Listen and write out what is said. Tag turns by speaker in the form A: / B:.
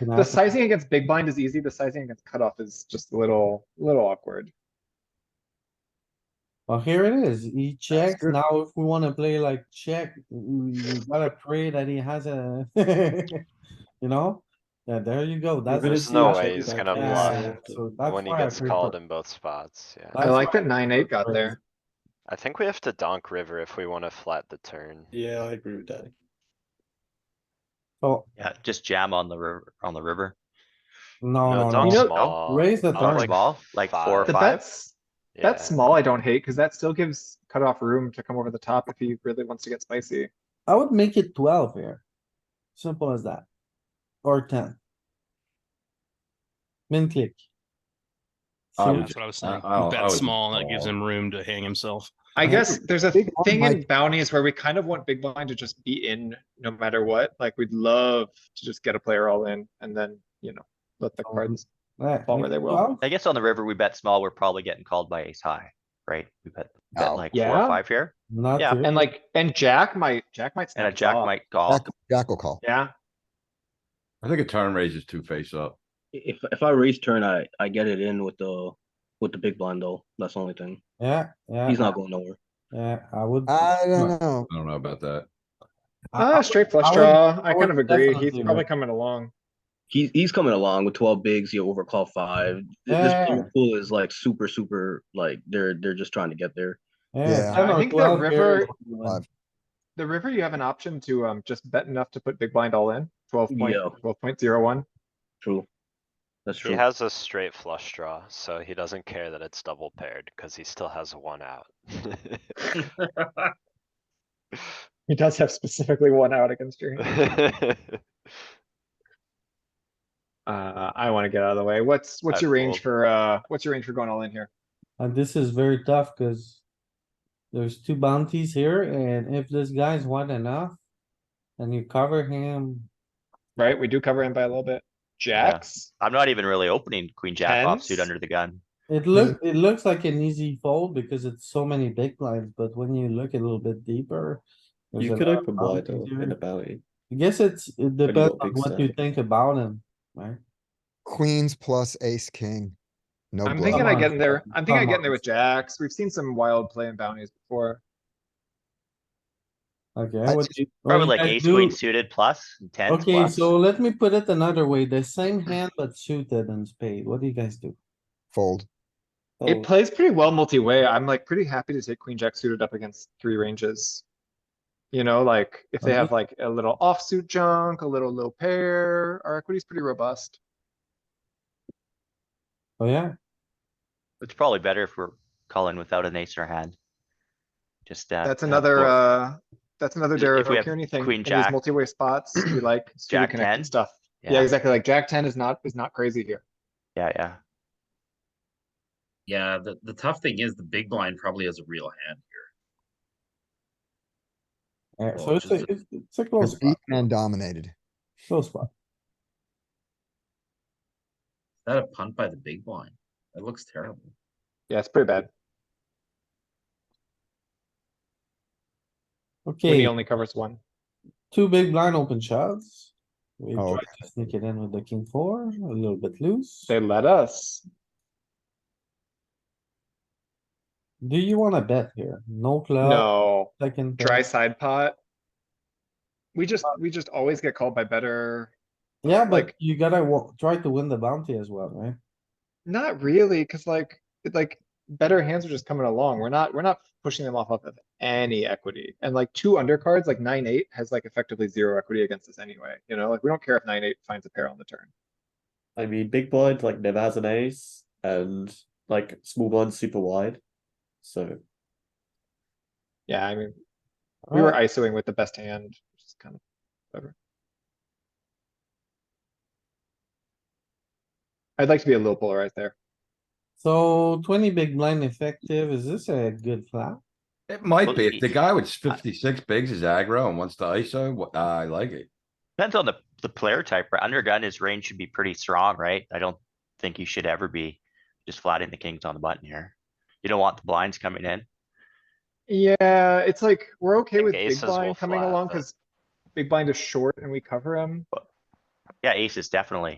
A: No,
B: The sizing against big blind is easy. The sizing against cutoff is just a little, little awkward.
A: Well, here it is. He checks.
B: good.
A: Now if we wanna play like check, you you gotta pray that he has a, you know? Yeah, there you go. That's.
C: There's
A: the
C: no
A: check
C: way he's
A: that-
C: gonna
A: yeah,
C: bluff
A: so that's
C: When he
A: why I
C: gets
A: prefer-
C: called in both spots, yeah.
B: I
A: That's
B: like
A: why
B: that nine, eight got
A: prefer-
B: there.
C: I think we have to donk river if we wanna flat the turn.
D: Yeah, I agree with that.
A: So,
E: Yeah, just jam on the river, on the river.
A: no,
C: No,
A: no,
C: donk
A: no.
B: know-
C: small.
A: Raise the
C: Donk
A: turn.
E: Dark small, like four or
B: The
E: five.
B: bets,
C: yeah.
B: that small I don't hate, cause that still gives cutoff room to come over the top if he really wants to get spicy.
A: I would make it twelve here. Simple as that. Or ten. Min click.
F: I
A: So
F: would
G: Oh, That's what I was
F: I-
G: saying.
F: I'll-
G: He
F: I would
G: bets small and that gives
F: call.
G: him room to hang himself.
B: I
A: Yeah.
B: guess there's a
A: Big blind
B: thing in
A: might-
B: bounties where we kind of want big blind to just be in no matter what. Like, we'd love to just get a player all in and then, you know, let the
A: Um,
B: cards.
A: yeah,
B: Fall where
A: make
B: they
A: it
B: will.
A: 12.
E: I guess on the river, we bet small, we're probably getting called by ace high, right? We bet, bet
F: No.
B: Oh,
E: like four or
B: Yeah.
E: five here,
A: Not
E: Yeah,
A: here.
B: And like, and Jack might, Jack might.
E: and a
B: snap us
E: jack
B: off.
E: might call.
H: Jack, Jack will call.
B: Yeah,
F: I think a turn raises two face up.
I: If if I raise turn, I I get it in with the with the big blind though. That's the only thing.
A: Yeah, yeah.
I: He's not going nowhere.
A: Yeah, I would.
H: I don't know.
F: I don't know about that.
A: I- I
B: ah, straight
A: I
B: flush
A: would-
B: draw.
A: I
B: I kind
A: would
B: of agree. He's
A: definitely
B: probably
A: would.
B: coming along.
I: He's he's coming along with twelve bigs. You overcall five. Th- This
A: Yeah.
I: player pool is like super super like they're they're just trying to get there.
A: Yeah,
H: Yeah.
A: ten
B: I
A: or
B: think the
A: 12 here
B: river-
A: is what you want.
B: The river, you have an option to, um, just bet enough to put big blind all in, twelve point,
I: Yeah.
B: twelve point zero one.
I: True. That's
C: He
I: true.
C: has a straight flush draw, so he doesn't care that it's double paired, cause he still has one out.
B: He does have specifically one out against your hand. Uh, I wanna get out of the way. What's, what's
C: I'd
B: your range
C: fold.
B: for, uh, what's your range for going all in here?
A: And this is very tough cuz there's two bounties here and if this guy's wide enough and you cover him,
B: Right? We do cover him by a little bit. Jacks?
E: I'm not even really opening queen jack offsuit
B: Tens?
E: under the gun.
A: it look, it looks like an easy fold because it's so many big blinds, but when you look a little bit deeper. there's
D: You
A: a
D: could
A: lot of
D: open wide though
A: bounties here.
D: in a bounty.
A: I guess it's,
D: got
A: it depends on
D: big
A: what you
D: stack.
A: think about him, right?
H: Queens plus ace, king. No
B: I'm
H: bluff.
B: thinking I
A: Come
B: get
A: on.
B: in there, I'm thinking I
A: Come
B: get in there
A: on.
B: with jacks. We've seen some wild play in bounties before.
A: Okay.
H: I
A: what
H: just-
A: you- what
E: Probably
A: you
E: like
A: guys
E: ace
A: do-
E: queen suited plus, and tens
A: Okay,
E: plus.
A: so let me put it another way. The same hand but suited and spade. What do you guys do?
H: Fold.
A: Oh,
B: It plays pretty well multi-way. I'm like pretty happy to take queen jack suited up against three ranges. You know, like if they have like a little offsuit junk, a little low pair, our equity's pretty robust.
A: Oh, yeah,
E: It's probably better if we're calling without an ace in our hand. Just, uh.
B: That's
E: have
B: another,
E: four-
B: uh, that's another
E: If- if
B: Darrow
E: we have
B: Kearney thing.
E: queen
B: in these
E: jack-
B: Multi-way spots, we like super
E: Jack 10?
B: connected stuff. Yeah,
E: Yeah,
B: exactly. Like jack ten is not, is not crazy here.
E: yeah, yeah.
J: Yeah, the, the tough thing is the big blind probably has a real hand here.
A: Yeah, so
J: Well,
A: it's a,
J: just a-
A: it's- it's a close
H: Deep
A: spot,
H: man dominated.
A: close spot.
J: Is that a punt by the big blind? That looks terrible.
B: Yeah, it's pretty bad. When
A: Okay,
B: he only covers one.
A: two big blind open shots. We
H: Oh,
A: try to sneak it in with the king four, a little bit loose.
B: They let us.
A: Do you wanna bet here? No club,
B: No.
A: second.
B: Dry
A: pair.
B: side pot. We just, we just always get called by better
A: Yeah, but
B: like-
A: you gotta wa- try to win the bounty as well, right?
B: Not really, cuz like, it- like, better hands are just coming along. We're not, we're not pushing them off of any equity. And like two undercards, like nine, eight has like effectively zero equity against us anyway, you know, like we don't care if nine, eight finds a pair on the turn.
D: I mean, big blind like never has an ace, and like small blind super wide. So
B: Yeah, I mean, we were ISOing with the best hand, which is kind of whatever. I'd like to be a little polarized there.
A: So twenty big blind effective, is this a good flop?
F: It
E: Well,
F: might be. If the
E: he-
F: guy with fifty-six bigs is aggro and wants to ISO, wha- I like it.
E: Depends on the, the player type, right? Undergun, his range should be pretty strong, right? I don't think you should ever be just flatting the kings on the button here. You don't want the blinds coming in.
B: Yeah, it's like, we're okay
C: think
B: with big
C: aces will
B: blind coming
C: flat,
B: along
C: but-
B: cuz big blind is short and we cover him.
E: Yeah, aces, definitely.